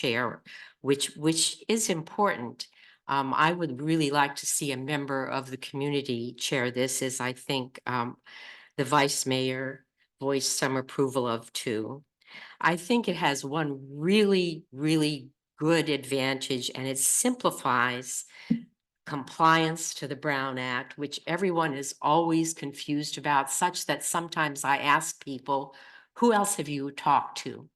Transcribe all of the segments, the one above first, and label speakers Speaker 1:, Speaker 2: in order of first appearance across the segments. Speaker 1: chair, which, which is important. Um, I would really like to see a member of the community chair this, as I think, um, the vice mayor voiced some approval of too. I think it has one really, really good advantage and it simplifies compliance to the Brown Act, which everyone is always confused about, such that sometimes I ask people, who else have you talked to?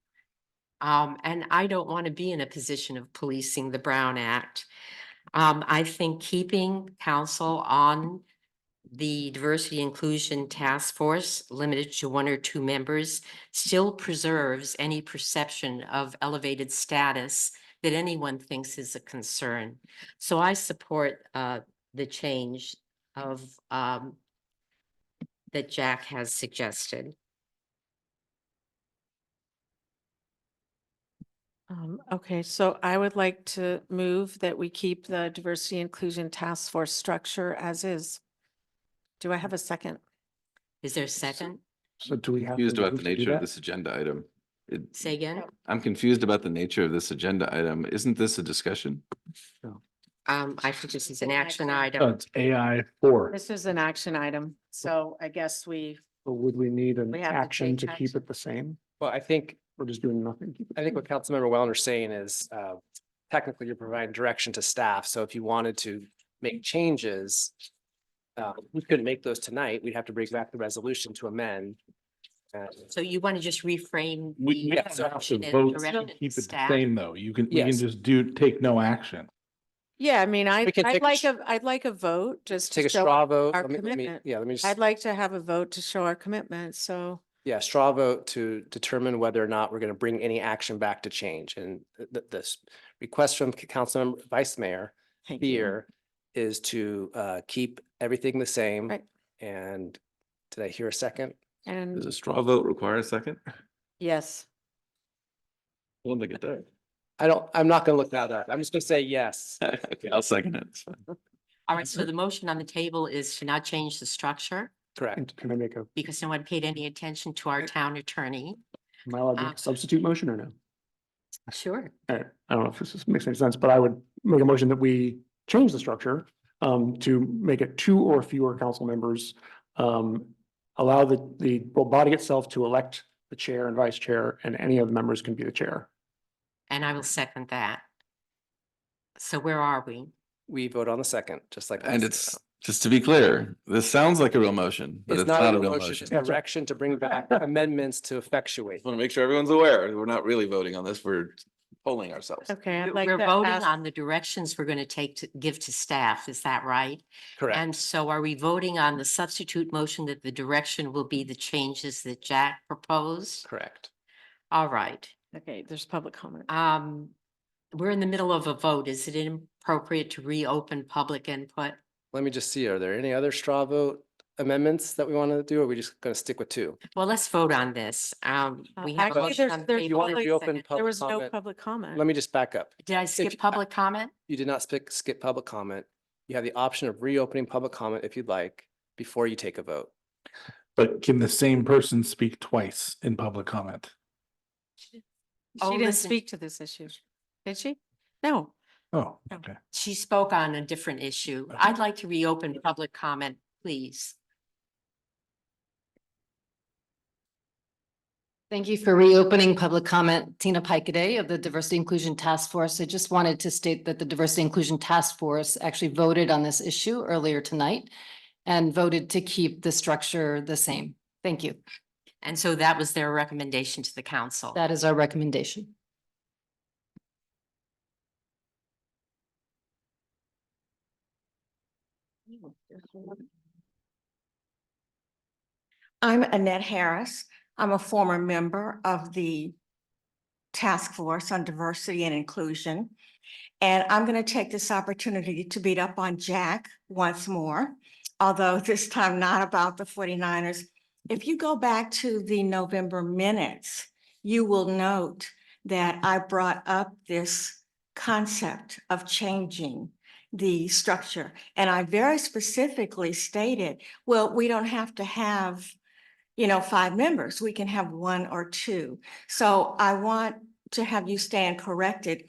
Speaker 1: Um, and I don't want to be in a position of policing the Brown Act. Um, I think keeping council on the Diversity Inclusion Task Force, limited to one or two members, still preserves any perception of elevated status that anyone thinks is a concern. So I support, uh, the change of, um, that Jack has suggested.
Speaker 2: Um, okay, so I would like to move that we keep the diversity inclusion task force structure as is. Do I have a second?
Speaker 1: Is there a second?
Speaker 3: So do we have?
Speaker 4: Confused
Speaker 3: to
Speaker 4: about
Speaker 3: move
Speaker 4: the
Speaker 3: to do
Speaker 4: nature of
Speaker 3: that?
Speaker 4: this agenda item. It-
Speaker 1: Say again?
Speaker 4: I'm confused about the nature of this agenda item. Isn't this a discussion?
Speaker 1: Um, I think this is an action
Speaker 3: Oh,
Speaker 1: item.
Speaker 3: it's AI four.
Speaker 2: This is an action item, so I guess we,
Speaker 3: But Would we need an
Speaker 2: We have to
Speaker 3: action to
Speaker 2: take
Speaker 3: keep
Speaker 2: action.
Speaker 3: it the same?
Speaker 5: Well, I think,
Speaker 3: We're just doing nothing? keep it
Speaker 5: I think
Speaker 3: the
Speaker 5: what Councilmember Wellner's saying is uh, technically you're providing direction to staff. So if you wanted to make changes, uh, we couldn't make those tonight. We'd have to bring back the resolution to amend. Uh,
Speaker 1: So you want to just reframe?
Speaker 6: We
Speaker 1: the
Speaker 6: we don't have
Speaker 1: direction
Speaker 6: to
Speaker 1: and
Speaker 6: vote
Speaker 1: direction
Speaker 6: to
Speaker 1: to
Speaker 6: keep it the
Speaker 1: staff?
Speaker 6: same, though. You can, we can
Speaker 5: Yes.
Speaker 6: just do, take no action.
Speaker 2: yeah, I mean, I,
Speaker 5: We can
Speaker 2: I'd
Speaker 5: take a
Speaker 2: like
Speaker 5: sh-
Speaker 2: a, I'd like a vote, just
Speaker 5: Take
Speaker 2: to
Speaker 5: a
Speaker 2: show,
Speaker 5: straw vote.
Speaker 2: our
Speaker 5: Let me- let me-
Speaker 2: commitment.
Speaker 5: Yeah, let me
Speaker 2: I'd
Speaker 5: just,
Speaker 2: like to have a vote to show our commitment, so.
Speaker 5: yeah, straw vote to determine whether or not we're going to bring any action back to change. And th- th- this request from Councilmember Vice Mayor
Speaker 2: thank you.
Speaker 5: here is to uh, keep everything the same.
Speaker 2: Right.
Speaker 5: And did I hear a second?
Speaker 4: Does a
Speaker 2: And
Speaker 4: straw vote require a second? I
Speaker 2: yes,
Speaker 4: don't think it does.
Speaker 5: I don't, I'm not gonna look that up. I'm just gonna say yes.
Speaker 4: Okay, I'll second it. It's fine.
Speaker 1: All right, so the motion on the table is to not change the structure
Speaker 2: Uh,
Speaker 5: Correct.
Speaker 3: same? Can I make a,
Speaker 1: because no one paid any attention to our town attorney.
Speaker 3: am I allowed to
Speaker 1: Uh,
Speaker 3: make a substitute motion or no?
Speaker 1: Sure.
Speaker 3: All right, I don't know if this is- makes any sense, but I would make a motion that we change the structure um, to make it two or fewer council members. Um, allow the, the body itself to elect the chair and vice chair and any of the members can be the chair.
Speaker 1: And I will second that. So where are we?
Speaker 5: We vote on the second, just like. last
Speaker 4: And it's,
Speaker 5: time.
Speaker 4: just to be clear, this sounds like a real motion, but
Speaker 5: It's not a real motion,
Speaker 4: motion.
Speaker 5: it's direction to bring back amendments to effectuate.
Speaker 4: Want to make sure everyone's aware. We're not really voting on this. We're polling ourselves.
Speaker 2: okay, I'd like
Speaker 1: We're
Speaker 2: to
Speaker 1: voting
Speaker 2: ask,
Speaker 1: on the directions we're going to take to give to staff. Is that right?
Speaker 5: Correct.
Speaker 1: And so are we voting on the substitute motion that the direction will be the changes that Jack proposed?
Speaker 5: Correct.
Speaker 1: All right.
Speaker 2: okay, there's public comment.
Speaker 1: Um, we're in the middle of a vote. Is it inappropriate to reopen public input?
Speaker 5: Let me just see, are there any other straw vote amendments that we want to do? or Are we just gonna stick with two?
Speaker 1: Well, let's vote on this. Um,
Speaker 2: Uh,
Speaker 1: we have. a
Speaker 2: actually,
Speaker 1: motion
Speaker 2: there's-
Speaker 1: on the
Speaker 2: there's
Speaker 1: table.
Speaker 2: one
Speaker 1: Wait a
Speaker 5: reopen
Speaker 1: second.
Speaker 5: public
Speaker 2: There was no
Speaker 5: comment.
Speaker 2: public comment.
Speaker 5: Let me just back up.
Speaker 1: Did I
Speaker 5: you-
Speaker 1: skip public comment?
Speaker 5: You did not skip, skip public comment. You have the option of reopening public comment if you'd like before you take a vote.
Speaker 6: But can the same person speak twice in public comment?
Speaker 1: Oh,
Speaker 2: She didn't
Speaker 1: listen.
Speaker 2: speak to this issue, did she? No,
Speaker 6: Oh,
Speaker 2: No.
Speaker 6: okay.
Speaker 1: She spoke on a different issue.
Speaker 6: Okay.
Speaker 1: I'd like to reopen public comment, please.
Speaker 7: Thank you for reopening public comment. Tina Pike of the Diversity Inclusion Task Force. I just wanted to state that the Diversity Inclusion Task Force actually voted on this issue earlier tonight and voted to keep the structure the same. Thank you.
Speaker 1: And so that was their recommendation to the council.
Speaker 7: That is our recommendation.
Speaker 8: I'm Annette Harris. I'm a former member of the Task Force on Diversity and Inclusion. And I'm going to take this opportunity to beat up on Jack once more, although this time not about the 49ers. If you go back to the November minutes, you will note that I brought up this concept of changing the structure. And I very specifically stated well, we don't have to have, you know, five members. We can have one or two. So I want to have you stand corrected